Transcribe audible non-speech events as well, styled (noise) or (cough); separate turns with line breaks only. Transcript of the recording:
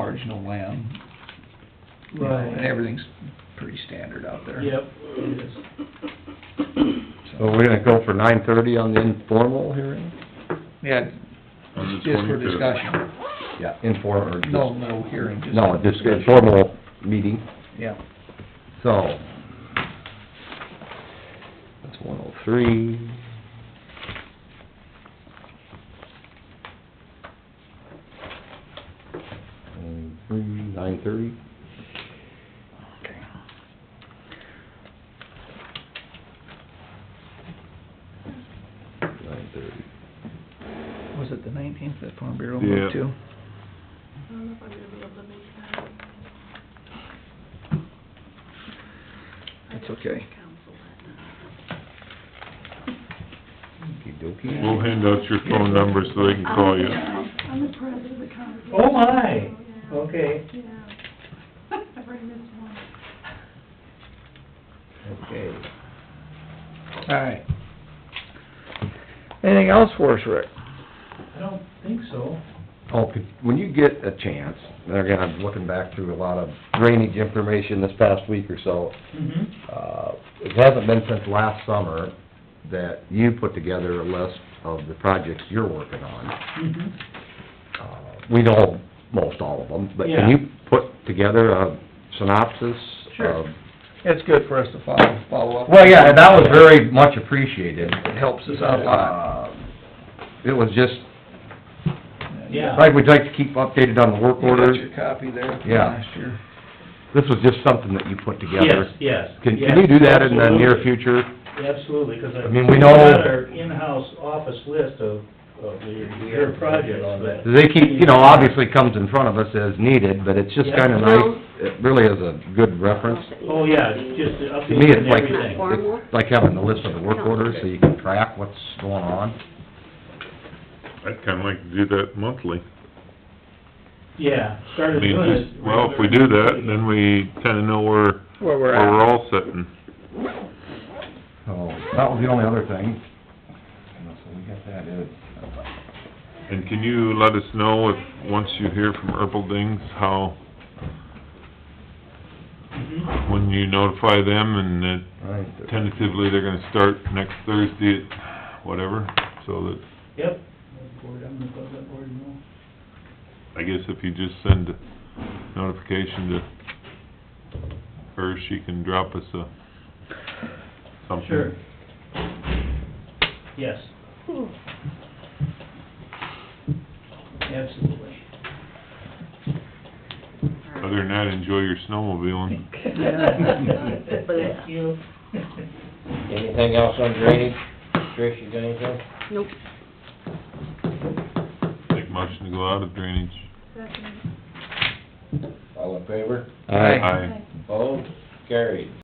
marginal land. you know,
Right.
And everything's pretty standard out there.
Yep, it is.
So we're gonna go for nine thirty on the informal hearing?
Yeah,
On the
just for
25th.
discussion,
Yeah. Informal, or just...
no, no hearing, just.
No, just informal meeting,
Yeah.
so... That's one oh three. Nine three, nine thirty?
Okay.
Nine thirty.
Was it the nineteenth that Farm Bureau
Yeah.
moved to?
I don't know if I'm gonna be able to make that. I
That's
don't
okay.
think Council that night.
Okey-dokey.
We'll hand out your phone number so they can call you.
Um, I'm the president of the congregation.
Oh, my.
so, yeah,
Okay.
Yeah. (laughs) I bring this one.
Okay.
All right. Anything else for us, Rick?
I don't think so.
Oh, could, when you get a chance, and again, I'm looking back through a lot of drainage information this past week or so,
Mm-hmm.
uh, it hasn't been since last summer that you put together a list of the projects you're working on.
Mm-hmm.
Uh, We know most all of them, but
Yeah.
can you put together a synopsis
Sure.
of?
It's good for us to follow, follow up.
Well, yeah, and that was very much appreciated.
It helps us out a lot.
Uh, It was just,
Yeah.
like, we'd like to keep updated on the work
You got
orders.
your copy there from
Yeah.
last year.
This was just something that you put
Yes,
together.
yes.
Can,
yes,
can you do that in the near
absolutely.
future?
Absolutely, 'cause I...
I mean, we know-
We've got our in-house office list of, of your, your projects, but...
They keep, you know, obviously comes in front of us as needed, but it's just
Yeah.
kinda nice, it really is a good reference.
Oh, yeah, just the
To me,
updates
it's
and
like,
everything.
it's like having the list of the work orders, so you can track what's going on.
I'd kinda like to do that monthly.
Yeah,
I
started
mean,
doing it...
just, well, if we do that, then we kinda know where,
Where we're
where we're
at.
all sitting.
So, that was the only other thing. So we got that in.
And can you let us know if, once you hear from Erpeldings, how,
Mhm.
when you notify them and that
Right.
tentatively they're gonna start next Thursday at whatever, so that,
Yep. Board, I'm gonna put that board in there.
I guess if you just send a notification to her, she can drop us a something.
Sure. Yes. Absolutely.
Other than that, enjoy your snowmobiling.
(laughs) Thank you.
Anything else on drainage? Trish, you got anything?
Nope.
Make motion to go out of drainage.
Second.
All in favor?
All right.
Aye.
Opposed? Carried.